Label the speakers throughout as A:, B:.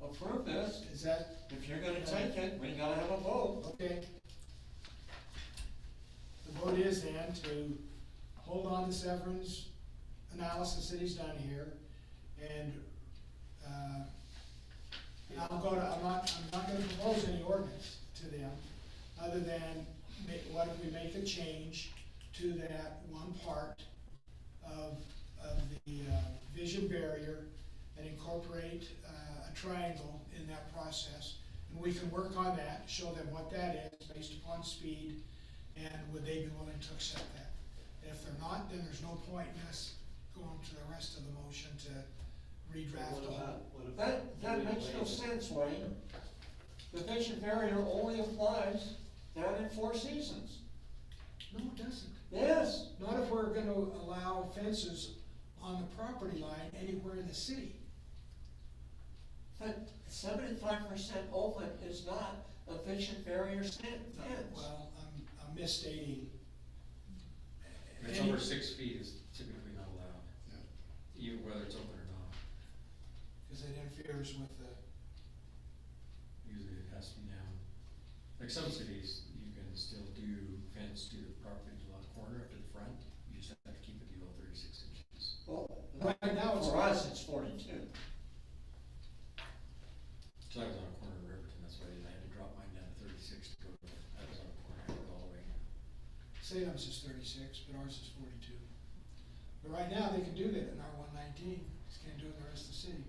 A: approve this,
B: Is that,
A: if you're gonna take it, we gotta have a vote.
B: okay? The vote is then to hold on to Severin's analysis that he's done here, and, uh, and I'll go to, I'm not, I'm not gonna propose any ordinance to them, other than, make, what if we make the change to that one part of, of the uh, vision barrier and incorporate uh, a triangle in that process. And we can work on that, show them what that is based upon speed, and would they be willing to accept that? If they're not, then there's no point in us going to the rest of the motion to redraft
C: What
B: the whole.
C: about, what about?
A: That, that makes no sense, Wayne. The vision barrier only applies down in Four Seasons.
B: No, it doesn't.
A: Yes,
B: Not if we're gonna allow fences on the property line anywhere in the city.
A: but seventy-five percent open is not a vision barrier stan- fence.
B: Well, I'm, I'm misstating.
D: If it's over six feet is typically not allowed, even whether it's open or not.
B: Because it interferes with the,
D: Usually it has to be down. Like some cities, you can still do fence to the property lot corner up to the front. You just have to keep it below thirty-six inches.
A: Well,
B: Right now it's-
A: For us, it's forty-two.
D: So I was on a corner of Riverton, that's why I had to drop mine down to thirty-six to go. I was on a corner, I had to go all the way.
B: Salem's is thirty-six, but ours is forty-two. But right now, they can do that in R one nineteen, just can't do it in the rest of the city.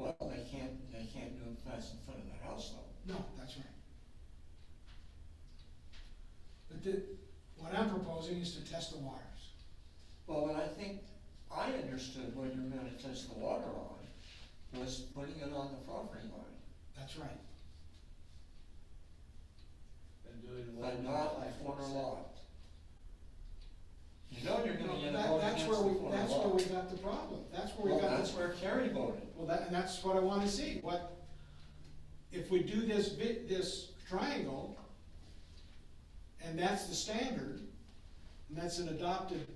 A: Well, they can't, they can't do it fast in front of the house though.
B: No, that's right. But the, what I'm proposing is to test the waters.
A: Well, and I think I understood what you were gonna test the water on, was putting it on the property line,
B: That's right.
C: And doing what?
A: but not a corner lot. You know you're gonna get a
B: That-
A: vote
B: That's
A: against the
B: where
A: corner
B: we,
A: lot.
B: that's where we got the problem, that's where
A: Well,
B: we got. the-
A: that's where Kerry voted.
B: Well, that, and that's what I wanna see, what, if we do this bit, this triangle, and that's the standard, and that's an adopted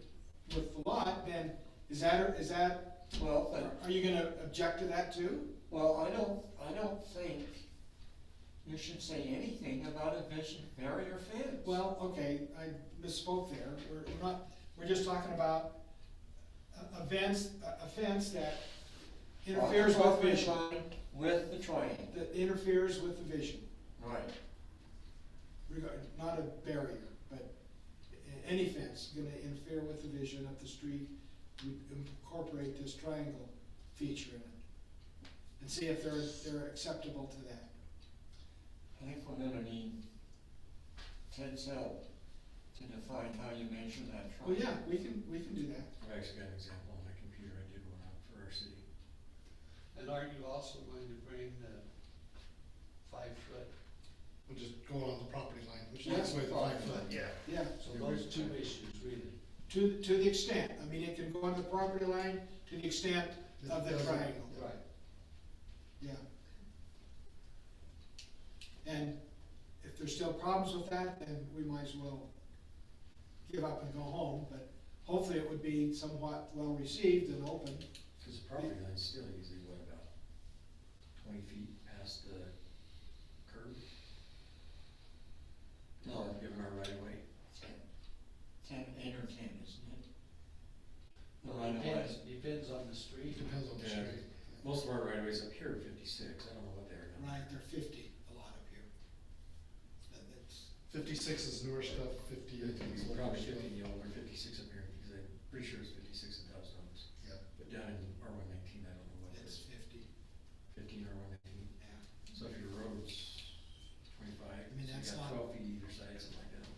B: with the lot, then is that, is that,
A: Well, but,
B: are you gonna object to that too?
A: well, I don't, I don't think you should say anything about a vision barrier fence.
B: Well, okay, I misspoke there, we're, we're not, we're just talking about a, a fence, a a fence that interferes with
A: Property
B: vision,
A: line With the triangle,
B: that interferes with the vision.
A: right.
B: regard, not a barrier, but a- any fence gonna interfere with the vision of the street, we incorporate this triangle feature in it. And see if they're, they're acceptable to that.
A: I think we're gonna need Ted Zell to define how you measure that truck.
B: Well, yeah, we can, we can do that.
D: I've actually got an example on my computer. I did one out for our city.
C: And are you also going to bring the five foot?
E: We're just going on the property line, which is the way the five foot. Yeah.
B: Yeah,
C: So those two issues really.
B: to, to the extent, I mean, it can go on the property line to the extent of the triangle,
C: Right.
B: yeah. And if there's still problems with that, then we might as well give up and go home, but hopefully it would be somewhat well-received and open.
D: Because the property line's still usually what, about twenty feet past the curb?
A: No.
D: Or Given our right of way?
A: Ten, ten, eight or ten, isn't it? The right of
C: Depends,
A: way.
C: depends on the street.
E: Depends on the
D: Yeah.
E: street.
D: Most of our right of ways up here are fifty-six, I don't know what they are now.
B: Right, they're fifty, a lot up here. That- that's-
E: Fifty-six is newer stuff, fifty-eight
D: It's
E: is older
D: Probably
E: stuff.
D: fifty, or fifty-six up here, because I'm pretty sure it's fifty-six in Dow Jones.
E: Yeah.
D: But down in R one nineteen, I don't know what it
B: It's
D: is,
B: fifty,
D: fifteen R one nineteen.
B: yeah.
D: So if your road's twenty-five,
B: I
D: so
B: mean,
D: you
B: that's
D: got
B: not-
D: twelve feet either side, something like that,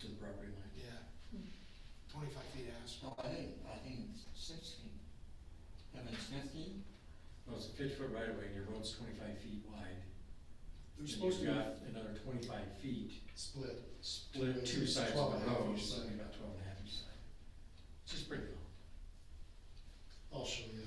D: to the property line.
B: Yeah. Twenty-five feet asphalt.
A: No, I think, I think it's sixteen. If it's fifteen,
D: Well, it's a fifty-foot right of way, and your road's twenty-five feet wide.
B: They're
D: and
B: supposed to
D: You've
B: be,
D: got another twenty-five feet,
E: Split.
D: split two
E: It's
D: sides
E: twelve
D: of the
E: and a half
D: road,
E: each
D: so
E: side.
D: you've got twelve and a half each side. Which is pretty long.
E: I'll show you